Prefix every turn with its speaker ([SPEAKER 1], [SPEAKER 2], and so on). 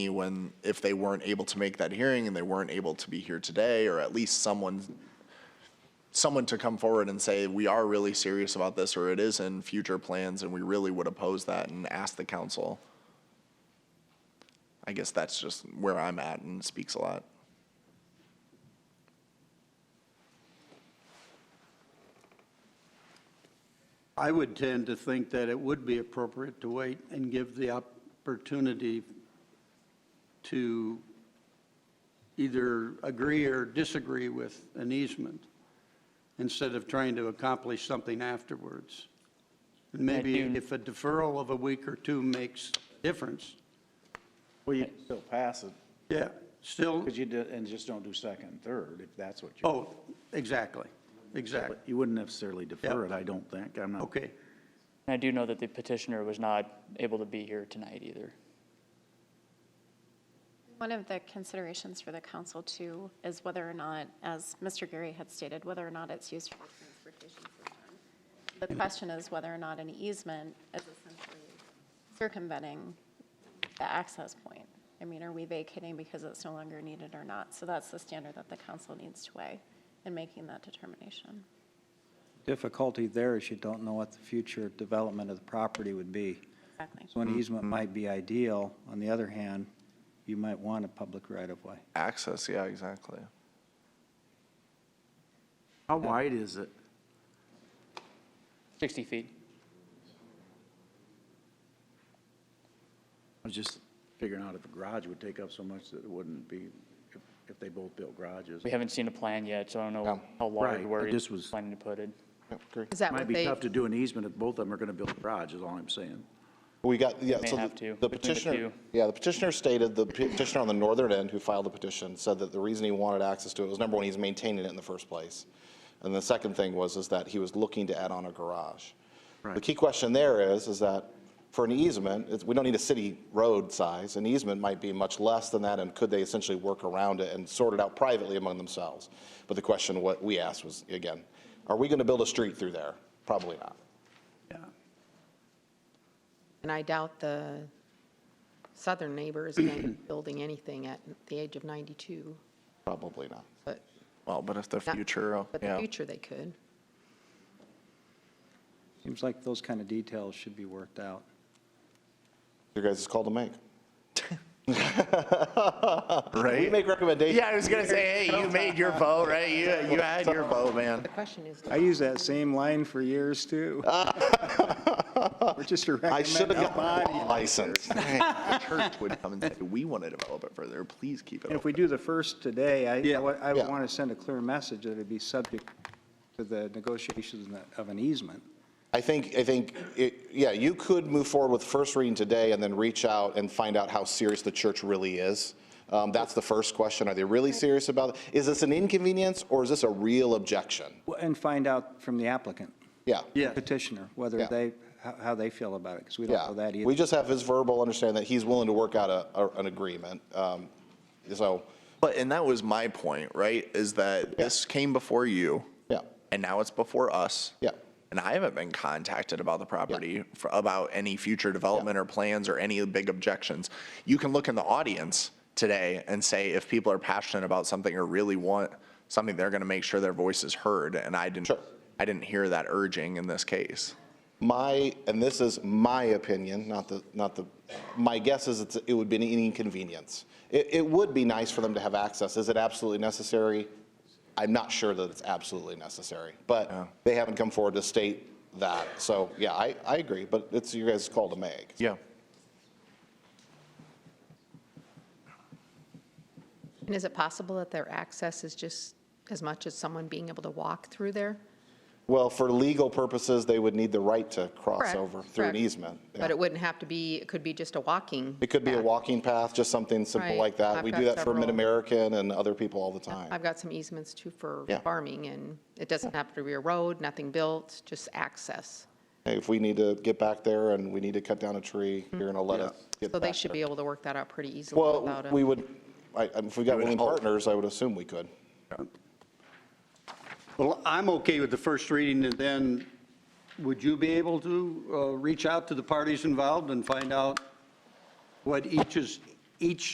[SPEAKER 1] when, if they weren't able to make that hearing and they weren't able to be here today, or at least someone, someone to come forward and say, we are really serious about this, or it is in future plans, and we really would oppose that and ask the council. I guess that's just where I'm at and speaks a lot.
[SPEAKER 2] I would tend to think that it would be appropriate to wait and give the opportunity to either agree or disagree with an easement instead of trying to accomplish something afterwards. And Maybe
[SPEAKER 3] do-
[SPEAKER 2] if a deferral of a week or two makes a difference,
[SPEAKER 4] Well, you can still pass it,
[SPEAKER 2] yeah, still,
[SPEAKER 4] because you did, and just don't do second and third, if that's what you,
[SPEAKER 2] oh, exactly, exactly.
[SPEAKER 4] but you wouldn't necessarily defer it,
[SPEAKER 2] Yeah.
[SPEAKER 4] I don't think, I'm not.
[SPEAKER 2] Okay,
[SPEAKER 3] And I do know that the petitioner was not able to be here tonight either.
[SPEAKER 5] One of the considerations for the council too is whether or not, as Mr. Gary had stated, whether or not it's used for transportation system. The question is whether or not an easement is essentially circumventing the access point. I mean, are we vacating because it's no longer needed or not? So that's the standard that the council needs to weigh in making that determination.
[SPEAKER 6] Difficulty there is you don't know what the future development of the property would be.
[SPEAKER 5] Exactly.
[SPEAKER 6] So an easement might be ideal. On the other hand, you might want a public right-of-way.
[SPEAKER 1] Access, yeah, exactly.
[SPEAKER 4] How wide is it?
[SPEAKER 3] 60 feet.
[SPEAKER 4] I was just figuring out if a garage would take up so much that it wouldn't be, if, if they both built garages.
[SPEAKER 3] We haven't seen a plan yet, so I don't know
[SPEAKER 1] No.
[SPEAKER 3] how large,
[SPEAKER 4] Right,
[SPEAKER 3] where
[SPEAKER 4] but
[SPEAKER 3] he's
[SPEAKER 4] this was-
[SPEAKER 3] planning to put it.
[SPEAKER 7] Is that
[SPEAKER 4] Might
[SPEAKER 7] what
[SPEAKER 4] be
[SPEAKER 7] they,
[SPEAKER 4] tough to do an easement if both of them are gonna build a garage, is all I'm saying.
[SPEAKER 8] We got, yeah,
[SPEAKER 3] may
[SPEAKER 8] so
[SPEAKER 3] have to, between the
[SPEAKER 8] the- the petitioner,
[SPEAKER 3] two.
[SPEAKER 8] yeah, the petitioner stated, the petitioner on the northern end who filed the petition said that the reason he wanted access to it was, number one, he's maintaining it in the first place. And the second thing was, is that he was looking to add on a garage. The key question there is, is that for an easement, it's- we don't need a city road size. An easement might be much less than that, and could they essentially work around it and sort it out privately among themselves? But the question what we asked was, again, are we going to build a street through there? Probably not.
[SPEAKER 2] yeah.
[SPEAKER 7] and I doubt the southern neighbor is going to be building anything at the age of 92,
[SPEAKER 8] Probably not.
[SPEAKER 7] but.
[SPEAKER 1] Well, but if the
[SPEAKER 7] not-
[SPEAKER 8] uh,
[SPEAKER 1] future, oh,
[SPEAKER 7] But the
[SPEAKER 1] yeah.
[SPEAKER 7] future they could.
[SPEAKER 6] Seems like those kind of details should be worked out.
[SPEAKER 8] Your guys' call to make. We
[SPEAKER 1] Right?
[SPEAKER 8] make recommendations.
[SPEAKER 1] Yeah, I was gonna say, hey, you made your vote, right? You, you had your vote, man.
[SPEAKER 7] The question is,
[SPEAKER 6] I used that same line for years, too. We're just a
[SPEAKER 8] I should have
[SPEAKER 6] recommended
[SPEAKER 8] gotten
[SPEAKER 6] body.
[SPEAKER 8] a license.
[SPEAKER 1] Church would come and say, we want to develop it further, please keep it
[SPEAKER 6] And if
[SPEAKER 1] open.
[SPEAKER 6] we do the first today, I- I, wa- I
[SPEAKER 8] Yeah.
[SPEAKER 6] would want to send a clear message that it'd be subject to the negotiations of an easement.
[SPEAKER 8] I think, I think, it- yeah, you could move forward with first reading today and then reach out and find out how serious the church really is. Um, That's the first question. Are they really serious about it? Is this an inconvenience or is this a real objection?
[SPEAKER 6] Well, And find out from the applicant,
[SPEAKER 8] Yeah.
[SPEAKER 2] Yeah.
[SPEAKER 6] petitioner,
[SPEAKER 8] Yeah.
[SPEAKER 6] whether they, how how they feel about it, because we don't
[SPEAKER 8] Yeah.
[SPEAKER 6] know that either.
[SPEAKER 8] We just have his verbal understanding that he's willing to work out a, a- an agreement. Um, So,
[SPEAKER 1] But, and that was my point, right, is that this came before you.
[SPEAKER 8] Yeah.
[SPEAKER 1] And now it's before us.
[SPEAKER 8] Yeah.
[SPEAKER 1] And I haven't been contacted about the property, for- about any future development or plans or any big objections. You can look in the audience today and say if people are passionate about something or really want something, they're gonna make sure their voice is heard, and I didn't,
[SPEAKER 8] Sure.
[SPEAKER 1] I didn't hear that urging in this case.
[SPEAKER 8] My, and this is my opinion, not the, not the, my guess is it's, it would be an inconvenience. It, it would be nice for them to have access. Is it absolutely necessary? I'm not sure that it's absolutely necessary, but they haven't come forward to state that. So, yeah, I, I agree, but it's your guys' call to make.
[SPEAKER 1] Yeah.
[SPEAKER 7] and is it possible that their access is just as much as someone being able to walk through there?
[SPEAKER 8] Well, for legal purposes, they would need the right to cross
[SPEAKER 7] Correct,
[SPEAKER 8] over through an
[SPEAKER 7] correct.
[SPEAKER 8] easement. yeah.
[SPEAKER 7] But it wouldn't have to be, it could be just a walking.
[SPEAKER 8] It could be a
[SPEAKER 7] path.
[SPEAKER 8] walking path, just something simple
[SPEAKER 7] Right.
[SPEAKER 8] like that.
[SPEAKER 7] I've
[SPEAKER 8] We
[SPEAKER 7] got
[SPEAKER 8] do that for
[SPEAKER 7] several.
[SPEAKER 8] Mid-American and other people all the time.
[SPEAKER 7] I've got some easements too for
[SPEAKER 8] Yeah.
[SPEAKER 7] farming, and it doesn't have to be a road, nothing built, just access.
[SPEAKER 8] Hey, if we need to get back there and we need to cut down a tree, you're going to let us get
[SPEAKER 7] So
[SPEAKER 8] back
[SPEAKER 7] they should
[SPEAKER 8] there.
[SPEAKER 7] be able to work that out pretty easily
[SPEAKER 8] Mm-hmm. Well,
[SPEAKER 7] without a.
[SPEAKER 8] we would, I- I- if we got willing partners, I would assume we could.
[SPEAKER 2] Well, I'm okay with the first reading, and then would you be able to uh, reach out to the parties involved and find out what each is, each